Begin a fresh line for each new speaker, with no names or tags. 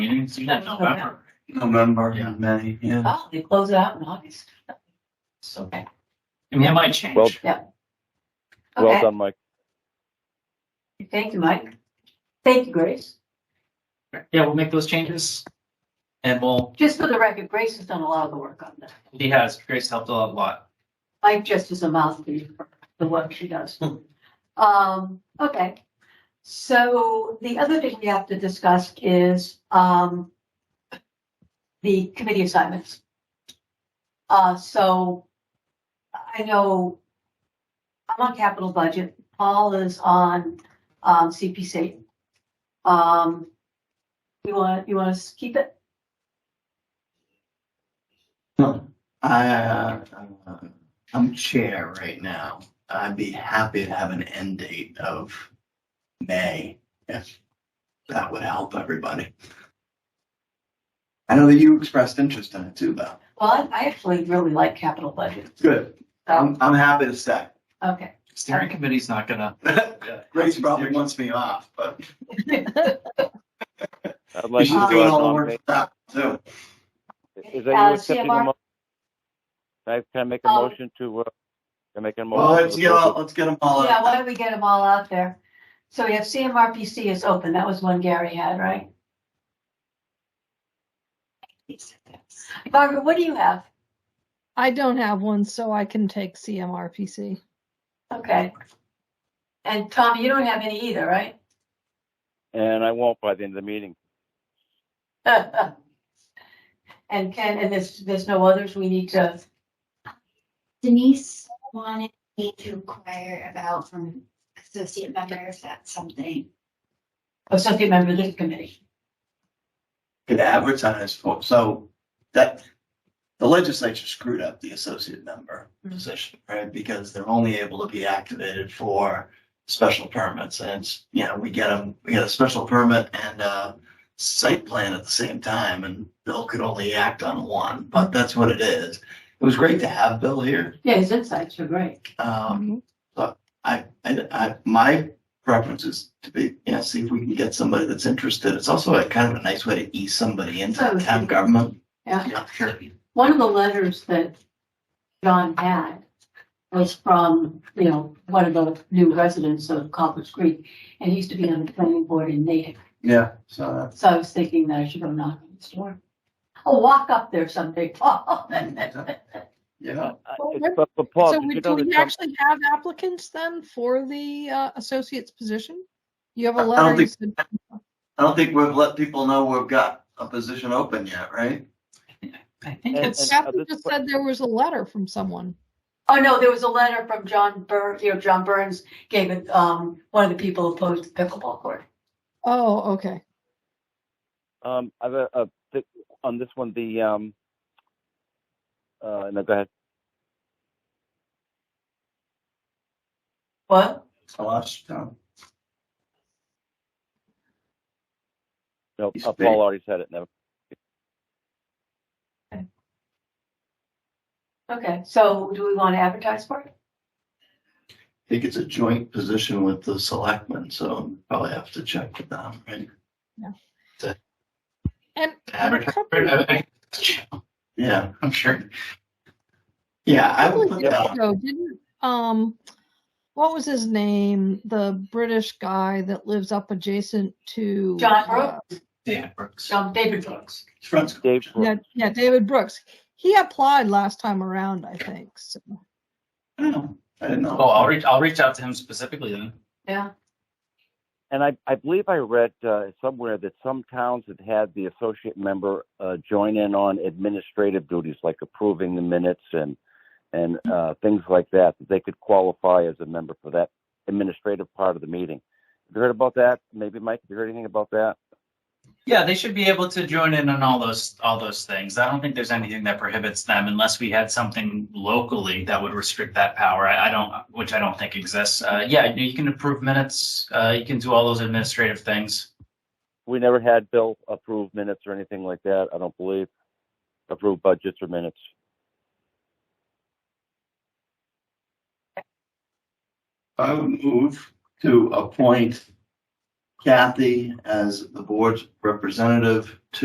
didn't see that.
November.
November,
Yeah.
May, yeah.
Oh, they close it out in August. It's okay.
I mean, it might
Well-
change.
Well
Okay.
done, Mike.
Thank you, Mike. Thank you, Grace.
Yeah, we'll make those changes. And we'll,
Just for the record, Grace has done a lot of the work on that.
he has, Grace helped a lot.
Mike just is a mouthpiece for the work she does. Um, okay. So the other thing we have to discuss is, um, the committee assignments. Uh, so I know I'm on capital budget, Paul is on, um, CPC. Um, you want, you want to keep it?
I, uh, I'm chair right now. I'd be happy to have an end date of May if that would help everybody. I know that you expressed interest in it too, Beth.
Well, I I actually really like capital budget.
Good. I'm, I'm happy to stay.
Okay.
Steering committee's not gonna.
Grace probably wants me off, but
I'd
you
like
should
to
do
do a
all the work
nomination.
for that too.
Is that
Uh,
you accepting
CMR?
the mo- Can I- can I make a
Oh.
Um,
motion to, uh, can I make a
Well, let's
motion?
get all, let's get them all
Yeah, why
out.
don't we get them all out there? So we have CMRPC is open. That was one Gary had, right? Barbara, what do you have?
I don't have one, so I can take CMRPC.
Okay. And Tommy, you don't have any either, right?
And I won't by the end of the meeting.
And Ken, and there's, there's no others we need to,
Denise wanted me to inquire about from associate members, that's something.
associate member oh, of this committee.
Could advertise for, so that, the legislature screwed up the associate member position, right? Because they're only able to be activated for special permits and, it's, you know, we get them, we get a special permit and a site plan at the same time and Bill could only act on one, but that's what it is. It was great to have Bill here.
Yeah, his insights were great.
Um,
Mm-hmm.
I, I, I, uh, my preference is to be, you know, see if we can get somebody that's interested. It's also a kind of a nice way to ease somebody into
Oh,
town government.
Yeah.
sure.
One of the letters that John had was from, you know, one of the new residents of Copper's Creek, and he used to be on the planning board in Natick.
Yeah, so uh, that's.
So I was thinking that I should go knock on his door. I'll walk up there someday, Paul.
Yeah.
Uh,
Well,
it's-
then-
But but Paul,
So
did
we-
you
do
know
we
that
actually have applicants then for the uh, associate's position? You have
I-
a
I don't
letter. you
think-
said-
I don't think we've let people know we've got a position open yet, right?
I think
And-
it's,
and-
Catherine just said there was a letter from someone.
Oh, no, there was a letter from John Burr, you know, John Burns gave it, um, one of the people who opposed the pickleball court.
Oh, okay.
some- um, I've, uh, uh, th- on this one, the, um, uh, no, go ahead.
What?
I lost Tom.
No,
He's
uh,
big.
Paul already said it, never.
Okay, so do we want to advertise for it?
I think it's a joint position with the selectmen, so probably have to check with them, right?
And and a
Advertise.
couple
Yeah, I'm sure. Yeah, I would
couple
put
of
that
years
on.
ago, didn't, um, what was his name? The British guy that lives up adjacent to.
John
uh,
Brooks,
Dan Brooks.
John David Brooks.
Friends.
Dave,
Yeah, yeah, David Brooks. He applied last time around, I think. So,
I don't know. I didn't know.
Oh, I'll reach, I'll reach out to him specifically then.
Yeah,
And I, I believe I read uh, somewhere that some towns had had the associate member uh, join in on administrative duties, like approving the minutes and and uh, things like that. That they could qualify as a member for that administrative part of the meeting. Have you heard about that? Maybe Mike, have you heard anything about that?
Yeah, they should be able to join in on all those, all those things. I don't think there's anything that prohibits them unless we had something locally that would restrict that power. I, I don't, which I don't think exists. Uh, yeah, you can approve minutes, uh, you can do all those administrative things.
We never had Bill approve minutes or anything like that. I don't believe approve budgets or minutes.
I would move to appoint Kathy as the board's representative to